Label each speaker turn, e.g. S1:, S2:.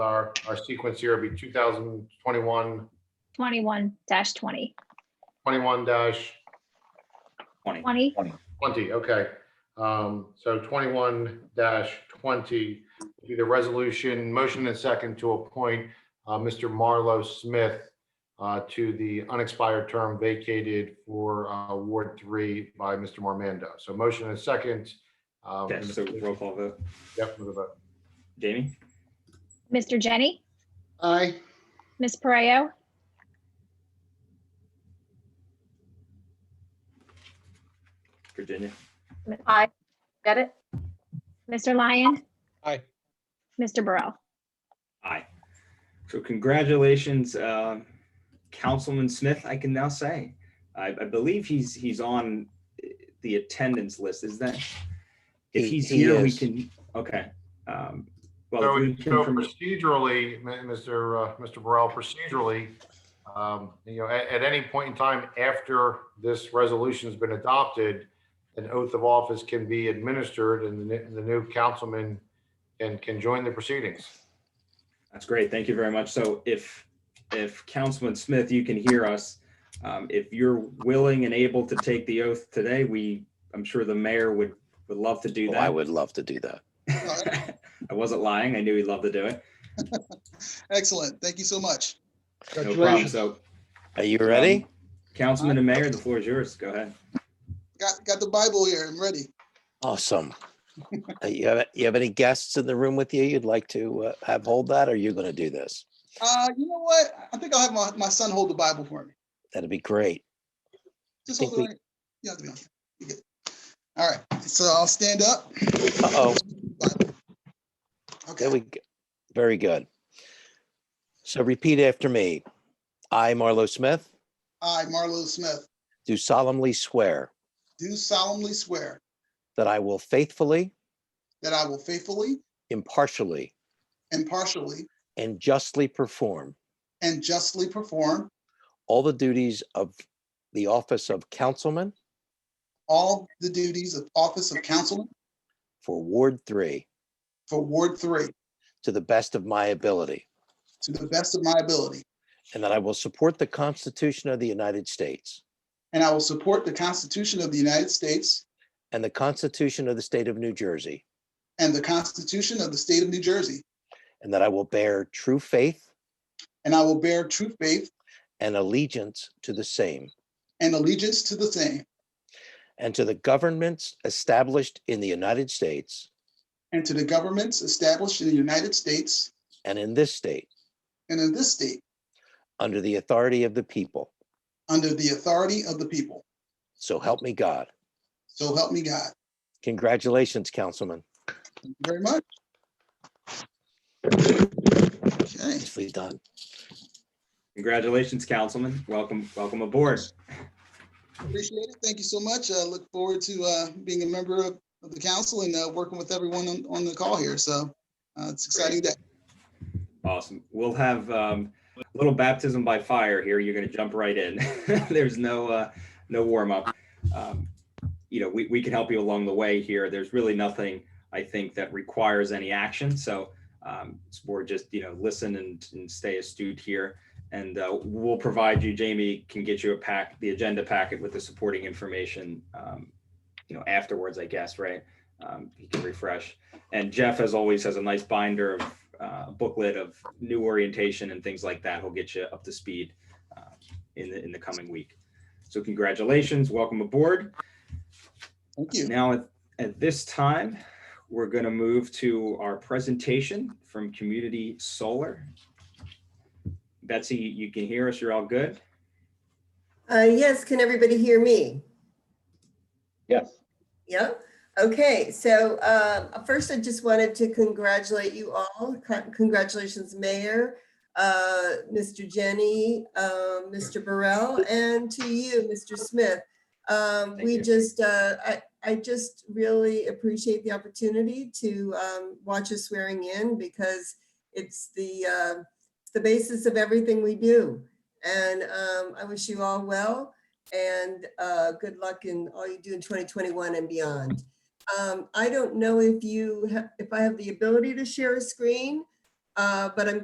S1: Our, our sequence here will be 2021,
S2: 21 dash 20,
S1: 21 dash
S3: 20.
S2: 20,
S1: 20, okay. Um, So 21 dash 20, do the resolution, motion and second to appoint uh, Mr. Marlowe Smith uh, to the unexpired term vacated for uh, Ward 3 by Mr. Mormando. So motion and second. um,
S3: Okay, so roll call vote.
S1: Yep, with a vote.
S3: Jamie?
S2: Mr. Jenny,
S4: Aye.
S2: Ms. Pareo,
S3: Virginia?
S5: Aye. Got it?
S2: Mr. Lyon.
S4: Aye.
S2: Mr. Burrell.
S3: Aye. So congratulations, um, Councilman Smith, I can now say. I, I believe he's, he's on the attendance list, is that? If
S4: He-
S3: he's
S4: he
S3: here, we
S4: is.
S3: can, okay. Um,
S1: So
S3: Well, if we
S1: we- so
S3: can, from-
S1: procedurally, M- Mr. uh, Mr. Burrell, procedurally, um, you know, at, at any point in time after this resolution's been adopted, an oath of office can be administered and the n- the new councilman can, can join the proceedings.
S3: that's great, thank you very much. So if, if Councilman Smith, you can hear us, um, if you're willing and able to take the oath today, we, I'm sure the mayor would, would love to do
S6: Oh,
S3: that.
S6: I would love to do that.
S3: I wasn't lying. I knew he'd love to do it.
S7: Excellent. Thank you so much.
S3: No problem.
S4: Congratulations.
S3: So,
S6: Are you ready?
S3: um, Councilman and Mayor, the floor is yours. Go ahead.
S7: Got, got the Bible here. I'm ready.
S6: Awesome. Uh, You have, you have any guests in the room with you you'd like to uh, have hold that? Or you're going to do this?
S7: Uh, you know what? I think I'll have my, my son hold the Bible for me.
S6: That'd be great.
S7: Just
S6: Think
S7: hold it.
S6: we-
S7: right- You don't have to be on. You're good. All right. So I'll stand up.
S6: Uh-oh,
S7: Okay.
S6: there we, go. very good. So repeat after me. I, Marlo Smith,
S7: I, Marlo Smith,
S6: do solemnly swear
S7: do solemnly swear
S6: that I will faithfully,
S7: that I will faithfully,
S6: impartially,
S7: impartially,
S6: and justly perform
S7: and justly perform
S6: all the duties of the office of councilman
S7: all the duties of office of councilman
S6: for Ward 3
S7: for Ward Three
S6: to the best of my ability,
S7: to the best of my ability.
S6: and that I will support the Constitution of the United States
S7: And I will support the Constitution of the United States
S6: and the Constitution of the State of New Jersey,
S7: and the Constitution of the State of New Jersey.
S6: and that I will bear true faith
S7: And I will bear true faith
S6: and allegiance to the same
S7: and allegiance to the same
S6: and to the governments established in the United States
S7: and to the governments established in the United States
S6: and in this state
S7: and in this state
S6: under the authority of the people.
S7: under the authority of the people.
S6: So help me God.
S7: So help me God.
S6: Congratulations, Councilman.
S7: Thank you Very much. Okay,
S6: Nicely done.
S3: Congratulations, Councilman. Welcome, welcome aboard.
S7: appreciate it. Thank you so much. I look forward to uh, being a member of of the council and uh, working with everyone on on the call here. So uh, it's exciting day.
S3: Awesome. We'll have um, a little baptism by fire here. You're going to jump right in. There's no uh, no warm up. Um, you know, we, we can help you along the way here. There's really nothing I think that requires any action. So um, it's more just you know listen and, and stay astute here. And uh, we'll provide you. Jamie can get you a pack, the agenda packet with the supporting information. Um, you know, afterwards, I guess, right? Um, you can refresh. And Jeff, as always, has a nice binder of uh, booklet of new orientation and things like that. He'll get you up to speed uh, in the in the coming week. So congratulations, welcome aboard.
S7: Thank you.
S3: Now at, at this time, we're going to move to our presentation from Community Solar. Betsy, you can hear us. You're all good.
S8: Uh, yes, can everybody hear me?
S4: Yes.
S8: Yeah, okay, so um, first I just wanted to congratulate you all. Con- Congratulations, Mayor, uh, Mr. Jenny, um, Mr. Burrell, and to you, Mr. Smith. Um,
S3: Thank
S8: We
S3: you.
S8: just, uh, I I just really appreciate the opportunity to um, watch us swearing in because it's the, uh, it's the basis of everything we do. And um, I wish you all well and uh, good luck in all you do in 2021 and beyond. Um, I don't know if you, ha- if I have the ability to share a screen, Uh, But I'm